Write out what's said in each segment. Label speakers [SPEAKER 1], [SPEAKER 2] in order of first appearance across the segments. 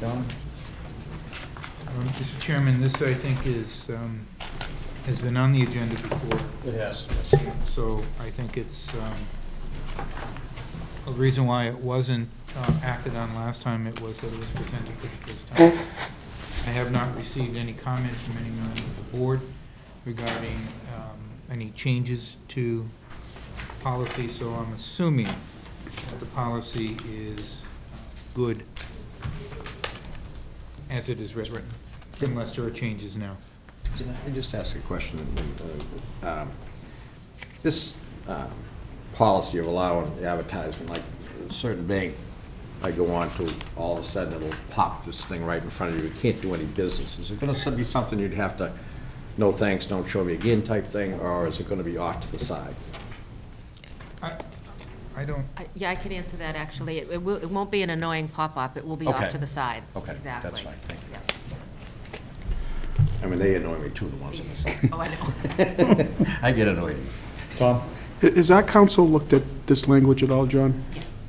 [SPEAKER 1] John?
[SPEAKER 2] Um, Mr. Chairman, this, I think, is, um, has been on the agenda before,
[SPEAKER 3] It has.
[SPEAKER 2] so I think it's um, a reason why it wasn't uh, acted on last time, it was that it was presented for the first time. I have not received any comments from any member of the board regarding um, any changes to policy, so I'm assuming that the policy is good as it is written, unless there are changes now.
[SPEAKER 1] Can I just ask a question? Uh, um, This um, policy of allowing advertisement, like a certain bank I go on to, all of a sudden it'll pop this thing right in front of you, you can't do any business. Is it going to be something you'd have to, no thanks, don't show me again type thing, or is it going to be off to the side?
[SPEAKER 2] I, I don't,
[SPEAKER 4] I- Yeah, I can answer that, actually. It it will, it won't be an annoying pop-up, it will be
[SPEAKER 1] Okay.
[SPEAKER 4] off to the side.
[SPEAKER 1] Okay, that's
[SPEAKER 4] Exactly.
[SPEAKER 1] fine. Thank you.
[SPEAKER 4] Yeah.
[SPEAKER 1] I mean, they annoy me too, the ones on the side.
[SPEAKER 4] Oh, I know.
[SPEAKER 1] I get annoyed.
[SPEAKER 3] Tom?
[SPEAKER 5] Ha- Has our council looked at this language at all, John?
[SPEAKER 4] Yes,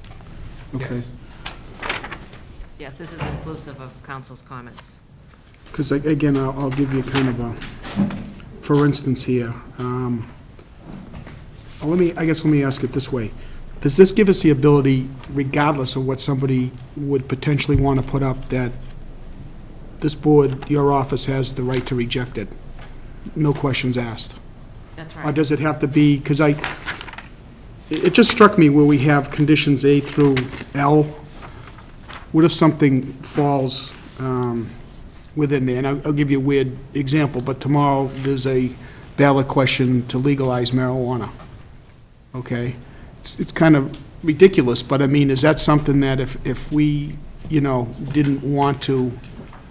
[SPEAKER 5] Okay,
[SPEAKER 2] yes.
[SPEAKER 4] yes, this is inclusive of council's comments.
[SPEAKER 5] Because again, I'll, I'll give you kind of a, for instance here, um, well, let me, I guess let me ask it this way. Does this give us the ability, regardless of what somebody would potentially want to put up, that this board, your office has the right to reject it? No questions asked?
[SPEAKER 4] That's
[SPEAKER 5] Or
[SPEAKER 4] right.
[SPEAKER 5] Oh, does it have to be, because I, it it just struck me where we have conditions A through L. What if something falls um, within there? And I'll I'll give you a weird example, but tomorrow, there's a ballot question to legalize marijuana. Okay? It's it's kind of ridiculous, but I mean, is that something that if, if we, you know, didn't want to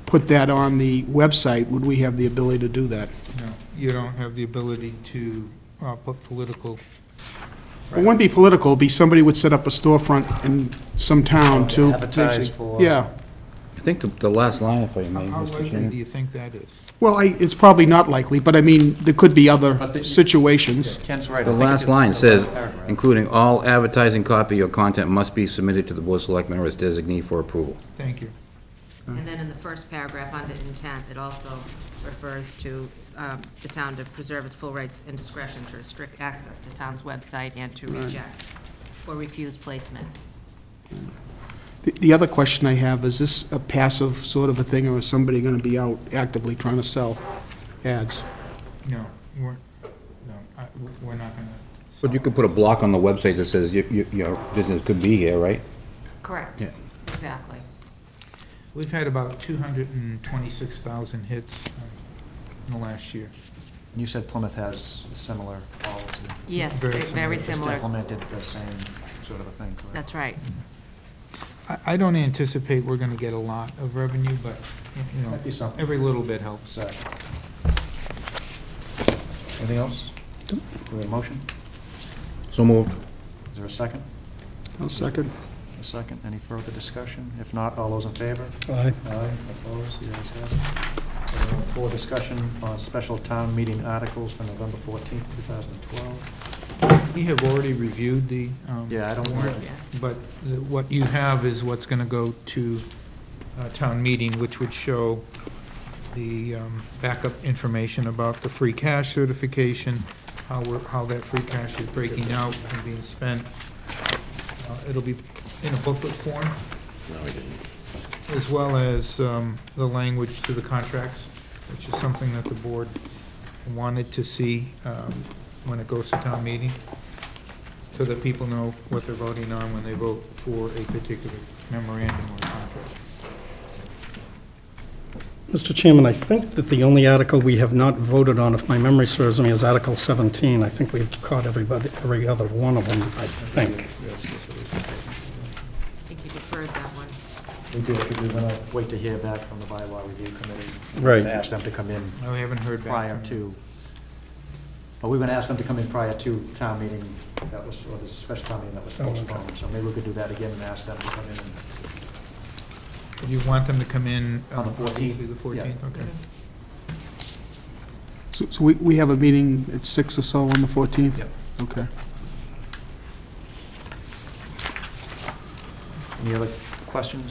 [SPEAKER 5] put that on the website, would we have the ability to do that?
[SPEAKER 2] No, you don't have the ability to uh, put political,
[SPEAKER 5] It wouldn't be political, it'd be somebody would set up a storefront in some town to.
[SPEAKER 3] Advertise for-
[SPEAKER 5] Yeah,
[SPEAKER 6] I think the, the last line, if I
[SPEAKER 2] how
[SPEAKER 6] may,
[SPEAKER 2] how
[SPEAKER 6] Mr.
[SPEAKER 2] likely do
[SPEAKER 6] Chairman.
[SPEAKER 2] you think that is?
[SPEAKER 5] well, I, it's probably not likely, but I mean, there could be
[SPEAKER 3] But
[SPEAKER 5] other
[SPEAKER 3] the-
[SPEAKER 5] situations.
[SPEAKER 3] Ken's right. I
[SPEAKER 6] The
[SPEAKER 3] think it's
[SPEAKER 6] last
[SPEAKER 3] in
[SPEAKER 6] line
[SPEAKER 3] the
[SPEAKER 6] says,
[SPEAKER 3] last paragraph.
[SPEAKER 6] including all advertising copy or content must be submitted to the Board of Selectmen or its designee for approval.
[SPEAKER 2] Thank you.
[SPEAKER 4] And then in the first paragraph, under intent, it also refers to um, the town to preserve its full rights and discretion to restrict access to town's website and to reject or refuse placement.
[SPEAKER 5] The, the other question I have, is this a passive sort of a thing, or is somebody gonna be out actively trying to sell ads?
[SPEAKER 2] No, we're, no, I- we're not going to.
[SPEAKER 6] But you could put a block on the website that says your, your, your business could be here, right?
[SPEAKER 4] Correct. Exactly.
[SPEAKER 2] We've had about 226,000 hits um, in the last year.
[SPEAKER 3] You said Plymouth has a similar policy.
[SPEAKER 4] Yes,
[SPEAKER 2] Very
[SPEAKER 4] they're very
[SPEAKER 3] Just
[SPEAKER 4] similar.
[SPEAKER 3] implemented the same sort of a thing, correct?
[SPEAKER 4] That's right.
[SPEAKER 2] I, I don't anticipate we're going to get a lot of revenue, but, you
[SPEAKER 3] Might be
[SPEAKER 2] know,
[SPEAKER 3] something.
[SPEAKER 2] every little bit helps.
[SPEAKER 3] So. Anything else? Do we have a motion?
[SPEAKER 6] So moved.
[SPEAKER 3] Is there a second?
[SPEAKER 5] I'll second.
[SPEAKER 3] A second? Any further discussion? If not, all those in favor?
[SPEAKER 5] Aye.
[SPEAKER 3] Aye, opposed, the ayes have it. Uh, For discussion on special town meeting articles for November fourteenth, two thousand and twelve.
[SPEAKER 2] We have already reviewed the. um,
[SPEAKER 3] Yeah, I don't
[SPEAKER 2] warrant.
[SPEAKER 3] want-
[SPEAKER 4] Yeah.
[SPEAKER 2] But the- what you have is what's going to go to uh, town meeting, which would show the um, backup information about the free cash certification, how we're, how that free cash is breaking out and being spent. Uh, It'll be in a booklet form,
[SPEAKER 1] No, I didn't.
[SPEAKER 2] as well as um, the language to the contracts, which is something that the board wanted to see um, when it goes to town meeting, so that people know what they're voting on when they vote for a particular memorandum or contract.
[SPEAKER 7] Mr. Chairman, I think that the only article we have not voted on, if my memory serves me, is Article 17. I think we've caught everybody, every other one of them, I think.
[SPEAKER 4] I think you deferred that one.
[SPEAKER 3] We do, because we're gonna wait to hear back from the bylaw review committee.
[SPEAKER 7] Right.
[SPEAKER 3] To ask them to come in
[SPEAKER 2] No, we haven't heard back.
[SPEAKER 3] prior
[SPEAKER 2] from-
[SPEAKER 3] to, well, we are going to ask them to come in prior to town meeting, that was, or the special town meeting that was
[SPEAKER 7] Oh, okay.
[SPEAKER 3] postponed, so maybe we could do that again and ask them to come in.
[SPEAKER 2] Do you want them to come in?
[SPEAKER 3] On the
[SPEAKER 2] um,
[SPEAKER 3] 14th?
[SPEAKER 2] obviously The 14th, okay.
[SPEAKER 5] So, so we, we have a meeting at six or so on the fourteenth?
[SPEAKER 3] Yep.
[SPEAKER 5] Okay.
[SPEAKER 3] Any other questions?